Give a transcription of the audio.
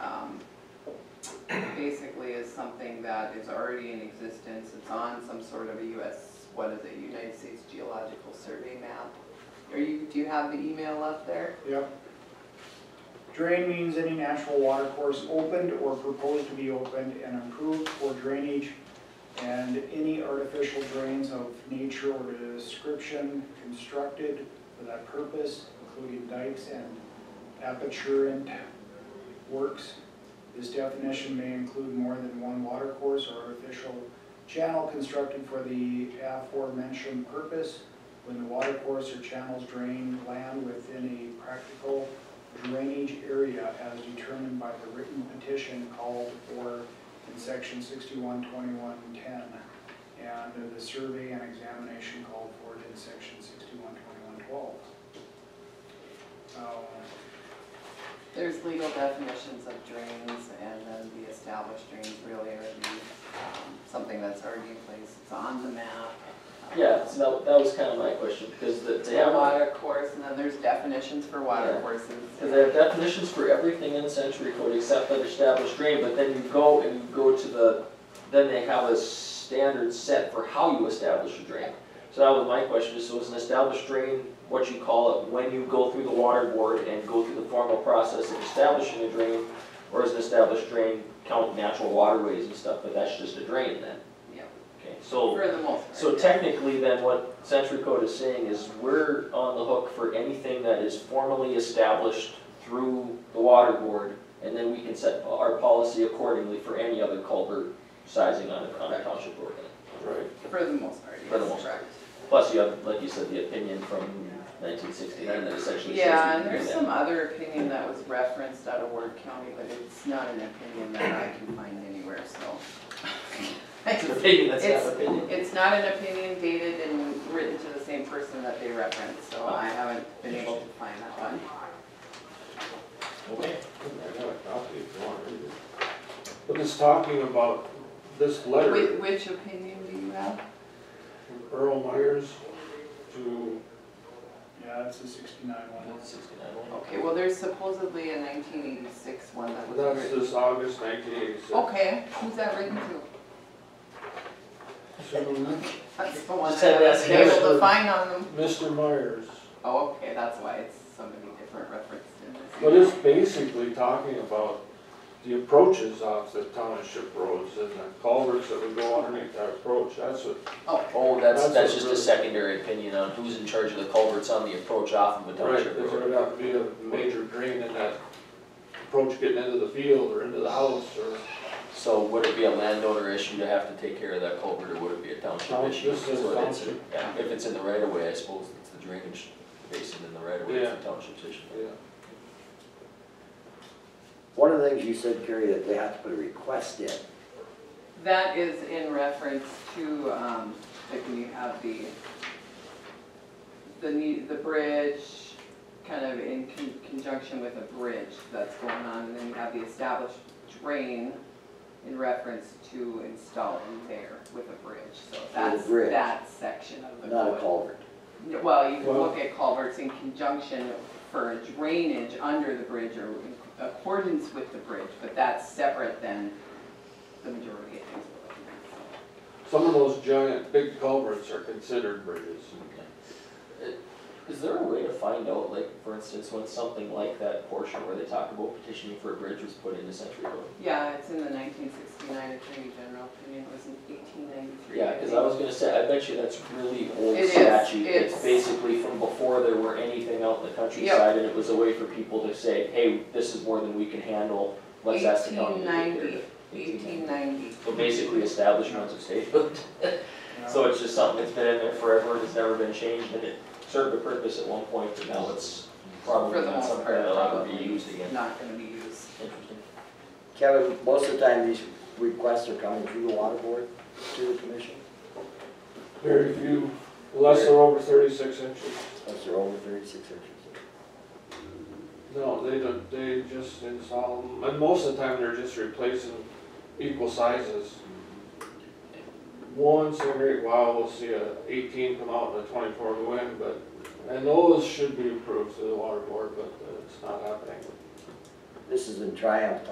um, that is already in existence, it's on some sort of a US, what is it, United States Geological Survey map. Are you, do you have the email up there? Yep. Drain means any natural water course opened or proposed to be opened and improved for drainage and any artificial drains of nature or description constructed for that purpose, including dikes and aperturant works. This definition may include more than one water course or artificial channel constructed for the aforementioned purpose when the water course or channels drain land within a practical drainage area as determined by the written petition called for in section sixty-one twenty-one ten, and the survey and examination called for in section sixty-one twenty-one Oh, twelve. There's legal definitions of drains and then the established drains really are the, um, something that's already in place, it's on the map. Yeah, so that, that was kind of my question, because the, they The have, water course, and then there's definitions for water Yeah. courses. because they have definitions for everything in century code except that established drain, but then you go and you go to the, then they have a standard set for how you establish a drain. So that was my question, is so is an established drain what you call it when you go through the water board and go through the formal process of establishing a drain? Or is an established drain count natural waterways and stuff, but that's just a drain then? Yeah. Okay, so. For the most part. So technically then what Century Code is saying is we're on the hook for anything that is formally established through the water board and then we can set our policy accordingly for any other culvert sizing on a, on a township road. Right. For the most part, For the yes, most correct. Plus you have, like you said, the opinion from nineteen sixty-nine that essentially says Yeah, we and can do there's that. some other opinion that was referenced out of Ward County, but it's not an opinion that I can find anywhere, It's an so. opinion, that's not opinion. It's not an opinion dated and written to the same person that they referenced, so I haven't been able to find that one. Okay. I got a copy if you want to read it. But it's talking about this letter, Which, which opinion do you have? from Earl Myers to, Yeah, that's a sixty-nine one. Sixty-nine. Okay, well, there's supposedly a nineteen eighty-six one that was that's written. this August nineteen eighty-six. Okay, who's that written to? That's the one Just I had that haven't been able to together. find on them. Mr. Myers, Oh, okay, that's why it's somebody different referenced in this. but it's basically talking about the approaches off the township roads and the culverts that would go underneath that approach, that's what, Oh, that's, That's that's what just a really- secondary opinion on who's in charge of the culverts on the approach off of a right, township there's road. gonna have to be a major drain in that approach getting into the field or into the house or. So would it be a landowner issue to have to take care of that culvert, or would it be a township Township, issue? this is So it's- township. yeah, If it's in the right of way, I suppose it's the drainage basin in the right of way, it's a township's issue. Yeah. One of the things you said, Kerry, that they have to put a request in. That is in reference to, um, like when you have the, the need, the bridge, kind of in con- conjunction with a bridge that's going on, and then you have the established drain in reference to installing there with a bridge, so that's, bridge. that section of the code. Not a culvert. Yeah, Well, you can Well- look at culverts in conjunction for drainage under the bridge or in accordance with the bridge, but that's separate than the majority of things we're looking at. Some of those giant, big culverts are considered bridges. Uh, Is there a way to find out, like, for instance, when something like that portion where they talk about petitioning for a bridge was put into Century Code? Yeah, it's in the nineteen sixty-nine Attorney General opinion, it was in eighteen ninety-three. Yeah, cause I was gonna say, I bet you that's really old It is, statute, it's it's- basically from before there were anything out in the countryside, and it was a way for people to say, hey, this is more than we can handle, let's ask the county to take care of it. 1890. Eighteen ninety. So basically establishments of statehood. So it's just something that's been in there forever, and it's never been changed, and it served a purpose at one point, but now it's For probably the not most something part, that'll ever be probably used again. Not gonna be used. Interesting. Kevin, most of the time, these requests are coming through the water board to the commission, Very few, unless they're over thirty-six inches. unless they're over thirty-six inches. No, they don't, they just install them, and most of the time they're just replacing equal sizes. Once in a great while, we'll see a eighteen come out and a twenty-four go in, but, and those should be approved through the water board, but uh, it's not happening. This is in Triumph